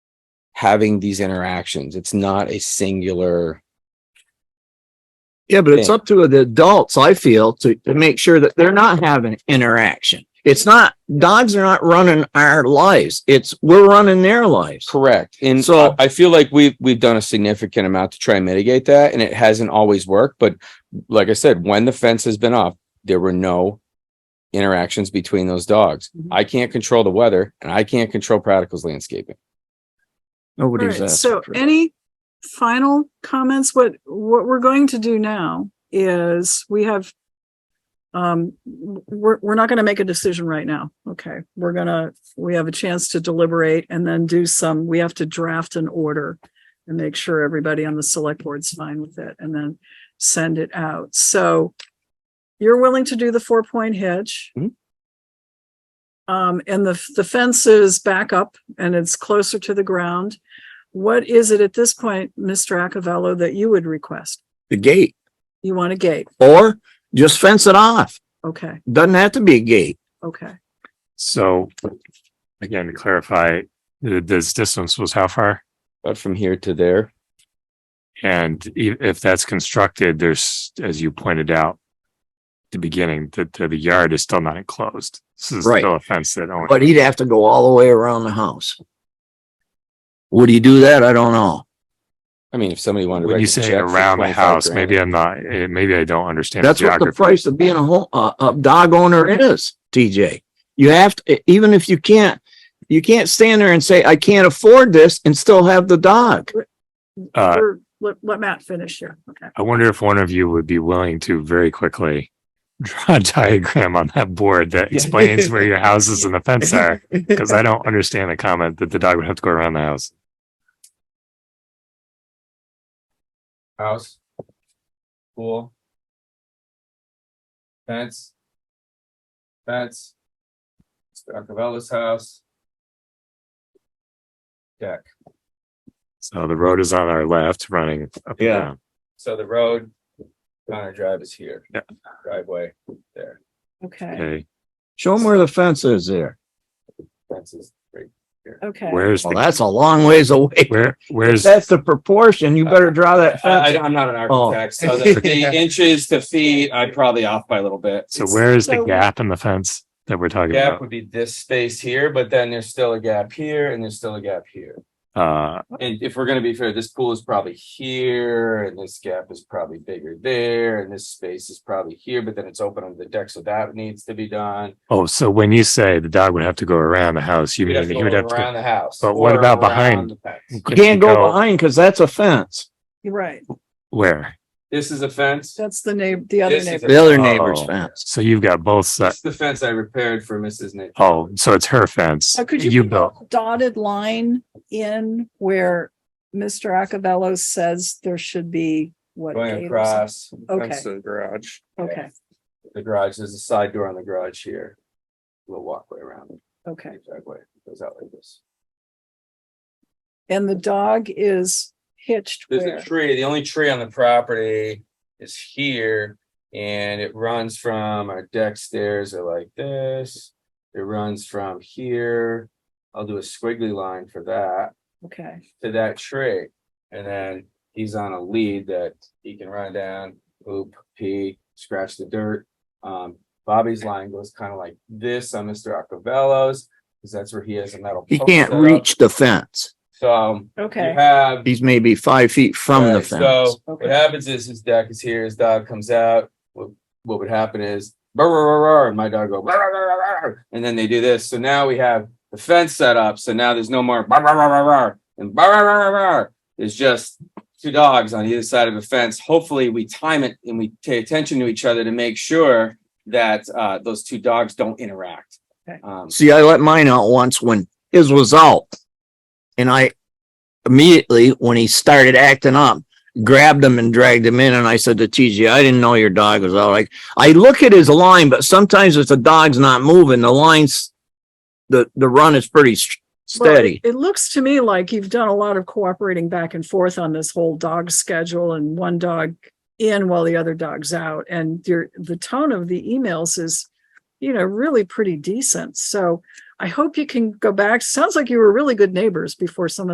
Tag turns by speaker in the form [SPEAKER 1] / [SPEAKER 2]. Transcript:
[SPEAKER 1] having these interactions. It's not a singular.
[SPEAKER 2] Yeah, but it's
[SPEAKER 1] thing.
[SPEAKER 2] up to the adults, I feel, to, to make sure that they're not having interaction. It's not, dogs are not running our lives. It's, we're running their lives.
[SPEAKER 1] Correct. And so
[SPEAKER 2] So-
[SPEAKER 1] I feel like we've, we've done a significant amount to try and mitigate that and it hasn't always worked. But like I said, when the fence has been off, there were no interactions between those dogs.
[SPEAKER 2] Mhm.
[SPEAKER 3] Mm-hmm.
[SPEAKER 1] I can't control the weather and I can't control Practical's landscaping.
[SPEAKER 2] Nobody's
[SPEAKER 4] Alright,
[SPEAKER 2] asking.
[SPEAKER 4] So
[SPEAKER 2] for it.
[SPEAKER 4] any final comments? What, what we're going to do now is we have, um, w- we're, we're not going to make a decision right now. Okay. We're gonna, we have a chance to deliberate and then do some, we have to draft an order and make sure everybody on the select board's fine with it and then send it out. So you're willing to do the four point hitch.
[SPEAKER 2] Mm-hmm.
[SPEAKER 1] Mhm.
[SPEAKER 4] Um, and the, the fence is back up and it's closer to the ground. What is it at this point, Mr. Acavello, that you would request?
[SPEAKER 2] The gate
[SPEAKER 4] You want a gate?
[SPEAKER 2] or just fence it off.
[SPEAKER 4] Okay,
[SPEAKER 2] Doesn't have to be a gate.
[SPEAKER 4] okay.
[SPEAKER 3] So again, to clarify, th- this distance was how far?
[SPEAKER 1] But from here to there,
[SPEAKER 3] And i- if that's constructed, there's, as you pointed out, at the beginning, that the, the yard is still not enclosed. This is
[SPEAKER 2] Right.
[SPEAKER 3] still a fence that only.
[SPEAKER 2] But he'd have to go all the way around the house. Would he do that? I don't know.
[SPEAKER 1] I mean, if somebody wanted. to
[SPEAKER 3] When
[SPEAKER 1] write
[SPEAKER 3] you
[SPEAKER 1] a
[SPEAKER 3] say
[SPEAKER 1] check for
[SPEAKER 3] around the
[SPEAKER 1] 25
[SPEAKER 3] house,
[SPEAKER 1] grand,
[SPEAKER 3] maybe I'm not, eh, maybe I don't understand.
[SPEAKER 2] That's what the
[SPEAKER 3] geography.
[SPEAKER 2] price of being a home, a, a dog owner is, TJ. You have to, even if you can't, you can't stand there and say, I can't afford this and still have the dog.
[SPEAKER 3] Uh,
[SPEAKER 4] We're- Let, let Matt finish here. Okay.
[SPEAKER 3] I wonder if one of you would be willing to very quickly draw a diagram on that board that explains where your houses and the fence are, because I don't understand the comment that the dog would have to go around the house.
[SPEAKER 1] House. Pool. Fence. Fence. Stacavella's house. Deck.
[SPEAKER 3] So the road is on our left running up and
[SPEAKER 1] Yeah.
[SPEAKER 3] down.
[SPEAKER 1] So the road, Connor Drive is here.
[SPEAKER 3] Yeah.
[SPEAKER 1] Driveway there.
[SPEAKER 4] Okay,
[SPEAKER 3] Okay,
[SPEAKER 2] Show them where the fence is there.
[SPEAKER 1] Fence is right.
[SPEAKER 4] okay.
[SPEAKER 3] where's,
[SPEAKER 2] Well,
[SPEAKER 3] the-
[SPEAKER 2] that's a long ways away.
[SPEAKER 3] where, where's,
[SPEAKER 2] That's the proportion. You better draw
[SPEAKER 1] I,
[SPEAKER 2] that fence.
[SPEAKER 1] I, am not an
[SPEAKER 2] Uh, Oh.
[SPEAKER 1] architect, so the, the inches to feet, I'm probably off by a little bit.
[SPEAKER 3] so where is the
[SPEAKER 4] so-
[SPEAKER 3] gap in the fence that we're talking
[SPEAKER 1] Gap
[SPEAKER 3] about?
[SPEAKER 1] would be this space here, but then there's still a gap here and there's still a gap here.
[SPEAKER 3] Uh,
[SPEAKER 1] And if we're gonna be fair, this pool is probably here and this gap is probably bigger there and this space is probably here, but then it's open on the deck, so that needs to be done.
[SPEAKER 3] oh, so when you say the dog would have to go around the house, you
[SPEAKER 1] We'd have
[SPEAKER 3] mean
[SPEAKER 1] to
[SPEAKER 3] he would
[SPEAKER 1] go
[SPEAKER 3] have to.
[SPEAKER 1] around the house.
[SPEAKER 3] But what
[SPEAKER 1] or
[SPEAKER 3] about
[SPEAKER 1] around
[SPEAKER 3] behind?
[SPEAKER 1] the fence.
[SPEAKER 3] go-
[SPEAKER 2] You can't go behind because that's a fence.
[SPEAKER 4] You're right.
[SPEAKER 3] Where?
[SPEAKER 1] This is a fence.
[SPEAKER 4] That's the neighbor, the other
[SPEAKER 1] This is
[SPEAKER 4] neighbor.
[SPEAKER 2] The other neighbor's
[SPEAKER 3] Oh.
[SPEAKER 2] fence.
[SPEAKER 3] So you've got both sides.
[SPEAKER 1] That's the fence I repaired for Mrs. Nick.
[SPEAKER 3] Oh, so it's her fence.
[SPEAKER 4] Uh, could you
[SPEAKER 3] You
[SPEAKER 4] put
[SPEAKER 3] built.
[SPEAKER 4] a Dotted line in where Mr. Acavello says there should be what?
[SPEAKER 1] Going
[SPEAKER 4] gate or something?
[SPEAKER 1] across.
[SPEAKER 4] Okay.
[SPEAKER 1] fence to the garage.
[SPEAKER 4] Okay,
[SPEAKER 1] The garage, there's a side door on the garage here. Little walkway around,
[SPEAKER 4] okay.
[SPEAKER 1] driveway goes out like this.
[SPEAKER 4] And the dog is hitched
[SPEAKER 1] There's
[SPEAKER 4] where?
[SPEAKER 1] a tree, the only tree on the property is here. And it runs from our deck stairs are like this. It runs from here. I'll do a squiggly line for that
[SPEAKER 4] Okay,
[SPEAKER 1] to that tree. And then he's on a lead that he can run down, oop, pee, scratch the dirt. Um, Bobby's line goes kind of like this on Mr. Acavello's, because that's where he has a metal.
[SPEAKER 2] He
[SPEAKER 1] post
[SPEAKER 2] can't
[SPEAKER 1] set Oh, up.
[SPEAKER 2] reach the fence.
[SPEAKER 1] So um, you
[SPEAKER 4] okay.
[SPEAKER 1] have.
[SPEAKER 2] He's maybe five feet from the
[SPEAKER 1] Right,
[SPEAKER 2] fence.
[SPEAKER 1] So what
[SPEAKER 4] Okay.
[SPEAKER 1] happens is his dog is here, his dog comes out. What what would happen is "Rar, rar, rar, rar," and my dog go "Rar, rar, rar, rar, rar," and then they do this. So now we have the fence set up. So now there's no more "Rar, rar, rar, rar, rar," and "Rar, rar, rar, rar, rar." There's just two dogs on either side of a fence. Hopefully we time it and we pay attention to each other to make sure that uh those two dogs don't interact.
[SPEAKER 4] Okay.
[SPEAKER 1] Um,
[SPEAKER 2] See, I let mine out once when his was out. And I immediately, when he started acting up, grabbed him and dragged him in. And I said to TJ, I didn't know your dog was out. Like, I look at his line, but sometimes if the dog's not moving, the lines, the, the run is pretty s-
[SPEAKER 4] Well, it-
[SPEAKER 2] steady.
[SPEAKER 4] It looks to me like you've done a lot of cooperating back and forth on this whole dog schedule and one dog in while the other dog's out. And your, the tone of the emails is, you know, really pretty decent. So I hope you can go back. Sounds like you were really good neighbors before some of